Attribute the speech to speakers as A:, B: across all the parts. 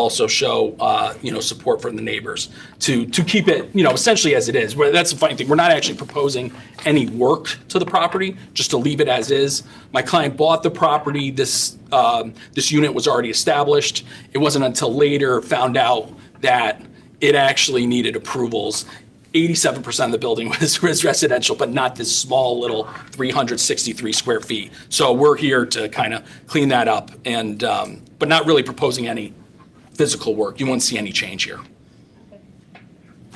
A: also show, uh, you know, support from the neighbors to, to keep it, you know, essentially as it is. Where that's the funny thing, we're not actually proposing any work to the property, just to leave it as is. My client bought the property, this, um, this unit was already established. It wasn't until later found out that it actually needed approvals. 87% of the building was, was residential, but not this small little 363 square feet. So we're here to kind of clean that up and, um, but not really proposing any physical work. You won't see any change here.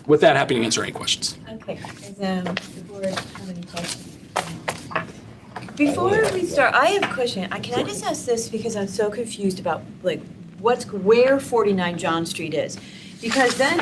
A: With that, happy to answer any questions.
B: Okay, does um, the board have any questions?
A: Oh,
B: Before we start, I have a question. I- Can I just ask this because I'm so confused about like what's, where 49 John Street is? Because then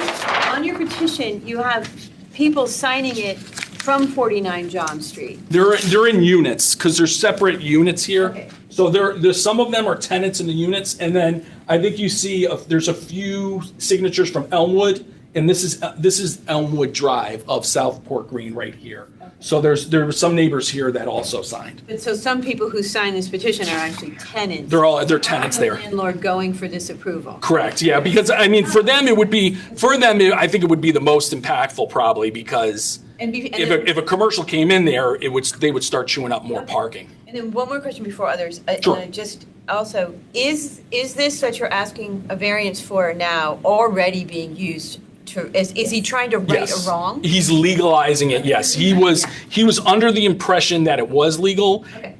B: on your petition, you have people signing it from 49 John Street.
A: They're, they're in units because they're separate units here.
B: Okay.
A: So there, there's, some of them are tenants in the units. And then I think you see, a- there's a few signatures from Elmwood. And this is, this is Elmwood Drive of Southport Green right here. So there's, there were some neighbors here that also signed.
B: But so some people who sign this petition are actually tenants.
A: They're all, they're tenants there.
B: Landlord going for this approval.
A: Correct, yeah, because I mean, for them, it would be, for them, it- I think it would be the most impactful probably because
B: And be- and
A: if
B: then-
A: a, if a commercial came in there, it would, they would start chewing up more
B: Okay.
A: parking.
B: And then one more question before others. I- and
A: Sure.
B: I Just also, is, is this that you're asking a variance for now already being used to, is, is he trying to right
A: Yes.
B: a wrong?
A: He's legalizing it, yes. He was, he was under the impression that it was legal.
B: Okay.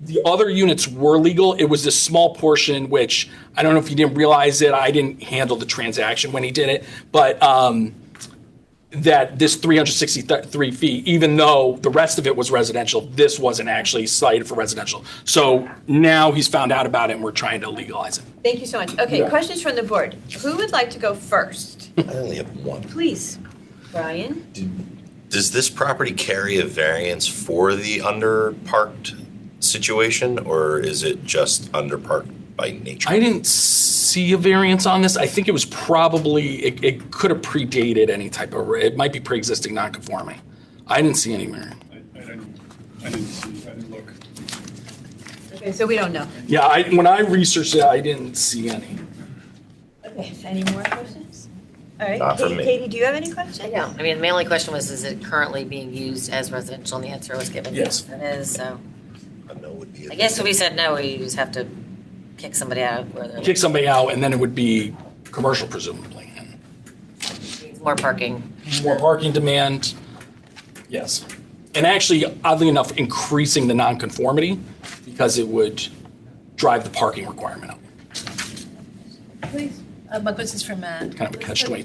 A: The other units were legal. It was this small portion, which I don't know if you didn't realize it. I didn't handle the transaction when he did it, but um, that this 363 feet, even though the rest of it was residential, this wasn't actually cited for residential. So now he's found out about it and we're trying to legalize it.
B: Thank you so much. Okay,
A: Yeah.
B: questions from the board. Who would like to go first?
C: I only have one.
B: Please, Brian.
C: Does this property carry a variance for the underparked situation, or is it just underparked by nature?
A: I didn't see a variance on this. I think it was probably, it, it could have predated any type of, it might be pre-existing non-conforming. I didn't see any variance.
D: I I didn't, I didn't see, I didn't look.
B: Okay, so we don't know.
A: Yeah, I, when I researched it, I didn't see any.
B: Okay, any more questions? All right,
C: Not from
B: Katie-
C: me.
B: Katie, do you have any questions?
E: No, I mean, my only question was, is it currently being used as residential, and the answer was given.
A: Yes.
E: It is, so,
C: A no would be a
E: I guess if we said no, we just have to kick somebody out of where
A: Kick
E: there's
A: somebody out and then it would be commercial presumably. and
E: more parking.
A: More parking demand, yes. And actually oddly enough, increasing the non-conformity because it would drive the parking requirement up.
F: Please. Uh, My question's for Matt.
A: Kind of a catch-22.
F: Does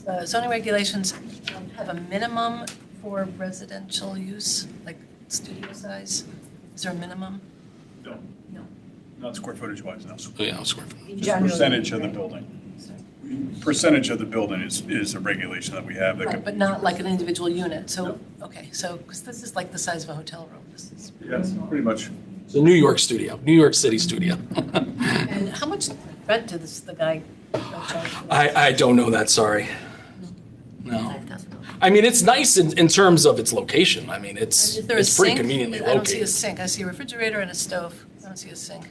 F: the town, uh, Zoning regulations um, have a minimum for residential use, like studio size? Is there a minimum?
D: No,
F: No.
D: not square footage wise, no. Just
A: Oh, Yeah, square foot.
B: In general,
D: percentage of the
B: right?
D: building. Percentage of the building is, is a regulation that we have that
F: Right,
D: could.
F: but not like an individual unit, so, okay, so, because this is like the size of a hotel room. This is
D: Yes, pretty much.
A: It's a New York studio, New York City studio.
F: And how much rent did this, the guy uh, charge? for this?
A: I, I don't know that, sorry. No.
E: $5,000.
A: I mean, it's nice in, in terms of its location. I mean, it's,
F: Is there a
A: it's pretty
F: sink?
A: conveniently
F: I don't see a
A: located.
F: sink, I see a refrigerator and a stove, I don't see a sink.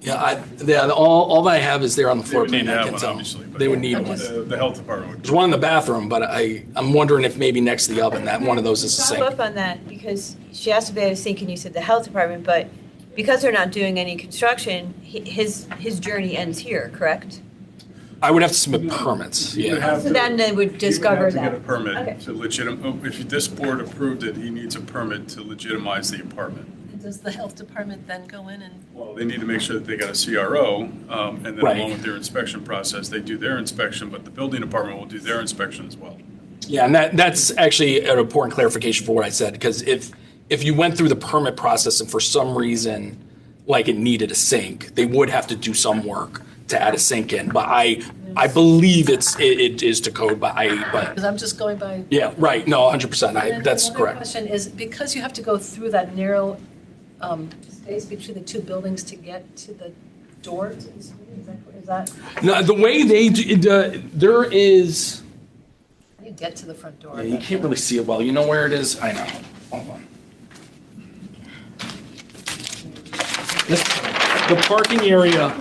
A: Yeah, I, yeah, all, all I have is there on the
D: They
A: floor
D: would
A: plan,
D: need to
A: I
D: have
A: can
D: one,
A: tell.
D: obviously. but
A: They would need one.
D: The the health department
A: There's one in the bathroom, but I, I'm wondering if maybe next to the oven, that one of those is a
B: Follow
A: sink.
B: up on that, because she asked about a sink, and you said the health department, but because they're not doing any construction, hi- his, his journey ends here, correct?
A: I would have to submit permits,
D: You would
A: yeah.
D: have
B: So
D: to-
B: then they would
D: he
B: discover
D: have to
B: that.
D: get a permit
B: Okay.
D: to legitim, if this board approved it, he needs a permit to legitimize the apartment.
F: And Does the health department then go in and
D: Well, they need to make sure that they got a CRO, um, and then
A: Right.
D: along with their inspection process, they do their inspection, but the building department will do their inspection as well.
A: Yeah, and that, that's actually an important clarification for what I said, because if, if you went through the permit process and for some reason, like it needed a sink, they would have to do some work to add a sink in, but I, I believe it's, it, it is to code, but I, but,
F: Because I'm just going by.
A: yeah, right, no, hundred percent,
F: And
A: I,
F: then
A: that's
F: another
A: correct.
F: question is, because you have to go through that narrow um, space between the two buildings to get to the door, to the school, is that, is that,
A: No, the way they, do- the, there is,
F: how do you get to the front door?
A: yeah, you can't really see it well, you know where it is? I know, hold on. This- The parking area